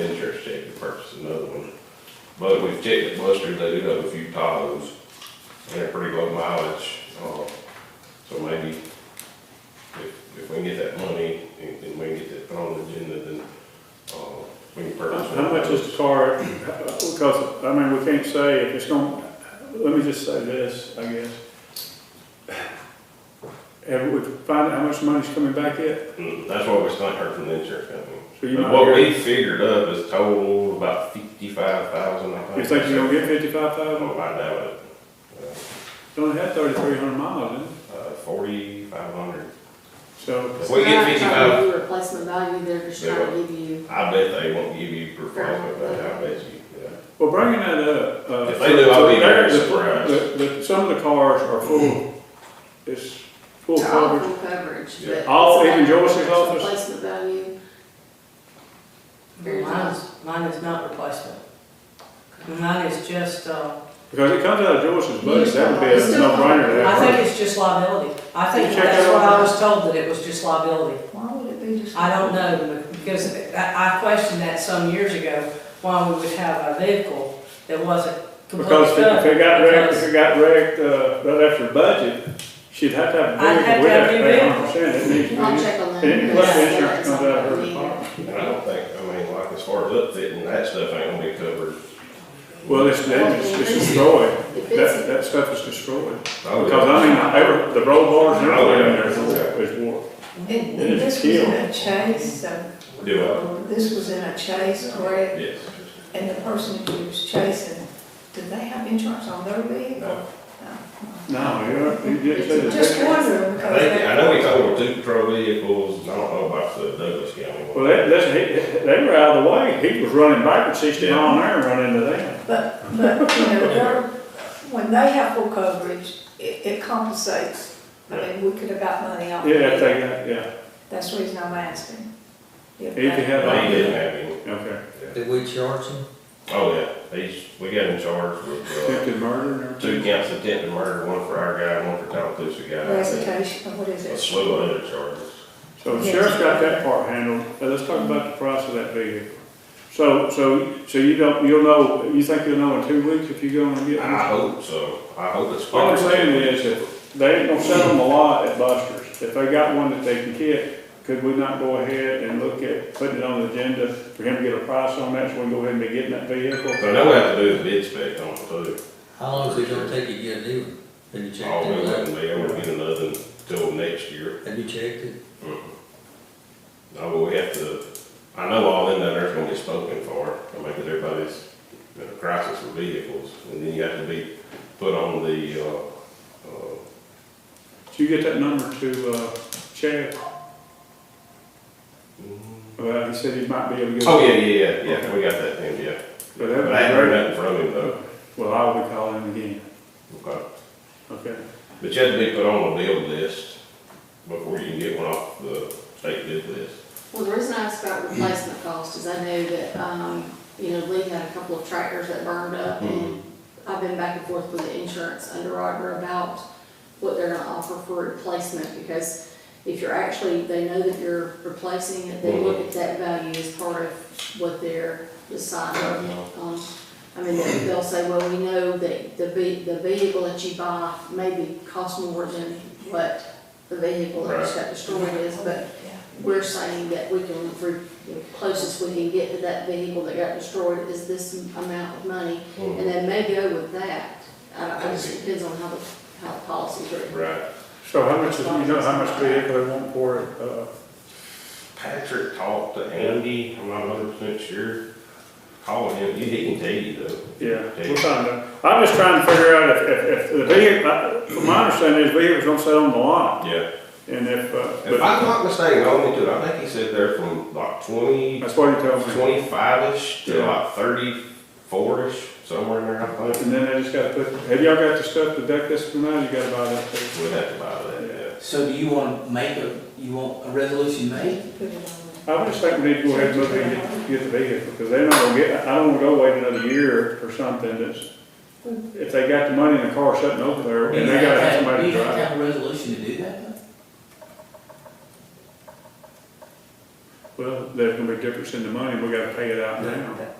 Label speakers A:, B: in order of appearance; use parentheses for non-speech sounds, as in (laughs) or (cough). A: insurance check to purchase another one. But we've checked at Buster's, they do have a few Tahoes, and they're pretty low mileage, uh, so maybe if, if we can get that money, and then we can get that on the agenda, then, uh, we can purchase. one
B: How
A: of
B: much
A: those.
B: is the car, because, I mean, we can't say if it's gonna, let me just say this, I guess. Have we found out how much money's coming back yet?
A: Mm, That's what we sent her from the insurance company.
B: So you
A: But
B: might
A: What
B: hear-
A: we figured up is total about fifty-five thousand, I think.
B: You think you're gonna get fifty-five
A: I
B: thousand?
A: don't know, I doubt it.
B: It only had thirty-three hundred miles, didn't it?
A: Uh, forty-five hundred.
B: So,
A: If we get
C: They're not trying
A: fifty-five,
C: to give you replacement value, they're just trying to give you,
A: I bet they won't give you performance, but I bet you, yeah.
B: well, bringing that up. uh,
A: If they do, I'll be very
B: so there-
A: surprised.
B: the- the- Some of the cars are full, it's full
C: to all
B: coverage.
C: full coverage,
A: Yeah.
C: but.
B: All, even Joyce's
C: It's
B: office?
C: Replacement value. Very
D: Mine is, mine is not replacement. Mine is just, uh,
B: Because it comes out of Joyce's budget, that would be
C: It's
B: a
C: still-
B: no-brainer to
D: I
B: have.
D: think it's just liability. I think
B: You check
D: that's
B: that
D: what I
B: out?
D: was told, that it was just liability.
E: Why would it be just?
D: I don't know, because I, I questioned that some years ago, why we would have a vehicle that wasn't completely
B: Because if
D: covered.
B: it got wrecked, if
D: because
B: it got wrecked, uh, right after budget, she'd have to have a
D: I'd
B: vehicle,
D: have
B: we'd
D: to
B: have
D: have
B: to
D: a new
B: pay
D: vehicle.
B: hundred percent, it needs to be.
C: I'll
B: And
C: check on that.
B: plus
C: Yeah,
B: insurance
C: that's
B: comes out of her
C: something we-
B: department.
A: And I don't think, I mean, like, as far as upfitting, that stuff ain't gonna be covered.
B: Well, it's damaged, it's destroyed,
C: If
B: that,
C: it's,
B: that stuff is destroyed.
A: Oh,
B: Because I mean, every, the roll bars and everything in there is war.
E: And
B: It is
E: this was in
B: killed.
E: a chase, so. um,
A: Do
E: This was in a chase,
A: I?
E: correct?
A: Yes.
E: And the person who was chasing, did they have insurance on their vehicle?
A: No.
B: No, you're, you didn't say that.
E: Just wondering,
A: I think, I
E: because
A: know we told them two patrol vehicles, I don't know about the Douglas County one.
B: Well, that, that's, he, they were out of the way, he was running backwards sixty mile an hour and running into them.
E: that, but, but, you know, they're, when they have full coverage, it, it compensates. I mean, we could have got money off. of
B: Yeah, if
E: it.
B: they got, yeah,
E: That's the reason I'm asking. If
B: if you
E: they-
B: have.
A: They didn't have any.
B: Okay,
F: Did we charge him?
A: Oh, yeah, they, we got in charge with,
B: attempted murder and
A: uh,
B: (laughs)
A: two
B: everything.
A: counts of attempted murder, one for our guy, one for Tallapoosa guy.
E: Recitation, what is
A: and A
E: it?
A: slew of other charges.
B: So the
E: Yes.
B: sheriff's got that part handled, Now, let's talk about the price of that vehicle. So, so, so you don't, you'll know, you think you'll know in two weeks if you go and get
A: I
B: one?
A: hope so. I hope it's.
B: All I'm saying is, if they ain't gonna sell them a lot at Buster's, if they got one that they can get, could we not go ahead and look at putting it on the agenda for him to get a price on that, so we can go ahead and be getting that vehicle?
A: But I know we have to do the bid spec on it too.
F: How long is it gonna take you to get a new one? Have you checked
A: All we
F: it?
A: wouldn't be able to get another until next year.
F: Have you checked it?
A: No, but we have to, I know all in there is gonna get spoken for. I mean, 'cause everybody's in a crisis with vehicles. And then you have to be put on the, uh, uh,
B: Did you get that number to, uh, Chad? Well, he said he might be able to get.
A: Mm-hmm. oh, yeah, yeah, yeah, yeah, we got that thing, yeah.
B: But that would
A: But I haven't
B: be
A: heard nothing from him
B: great.
A: though.
B: Well, I will be calling him again,
A: Okay.
B: okay?
A: But you have to be put on a bid list before you can get one off the state bid list.
C: well, the reason I asked about replacement cost is I know that, um, you know, Lee had a couple of tractors that burned up and I've been back and forth with the insurance underwriter about what they're gonna offer for replacement because if you're actually, they know that you're replacing it, they look at that value as part of what they're deciding. Um, I mean, they- they'll say, well, we know that the ve- the vehicle that you buy maybe costs more than what the vehicle that just got destroyed is, but we're saying that we can, re- the closest we can get to that vehicle that got destroyed is this amount of money,
A: Hmm.
C: and they may go with that. I don't, it just depends on how the, how the policy's written.
A: Right.
B: So how much, is- you know, how much vehicle they want for it, uh,
A: Patrick talked to Andy, I'm not hundred percent sure. Call him, he he can tell you though.
B: yeah, we'll find out. I'm just trying to figure out if, if, if the vehicle, I- from my understanding, is vehicle's gonna sit on the lot,
A: Yeah,
B: and if, uh,
A: if
B: but
A: I'm not mistaken, hold me to it, I think he said there from like twenty,
B: that's what he tells me.
A: twenty-five-ish to
B: Yeah.
A: like thirty-four-ish, somewhere in there, I think.
B: And then they just gotta put, have y'all got the stuff to deck this from now, you gotta buy that too.
A: We'd have to buy that,
G: So do you want to make a, you want a resolution made?
E: Put it on
B: I would just think we need to go ahead and look and get, get the vehicle, because they're not gonna get, I don't wanna go wait another year for something that's, if they got the money in the car sitting over there, and they gotta have
G: Do
B: somebody
G: you
B: to drive.
G: have to have a resolution to do that though?
B: Well, there's gonna be a difference in the money, we gotta pay it out now.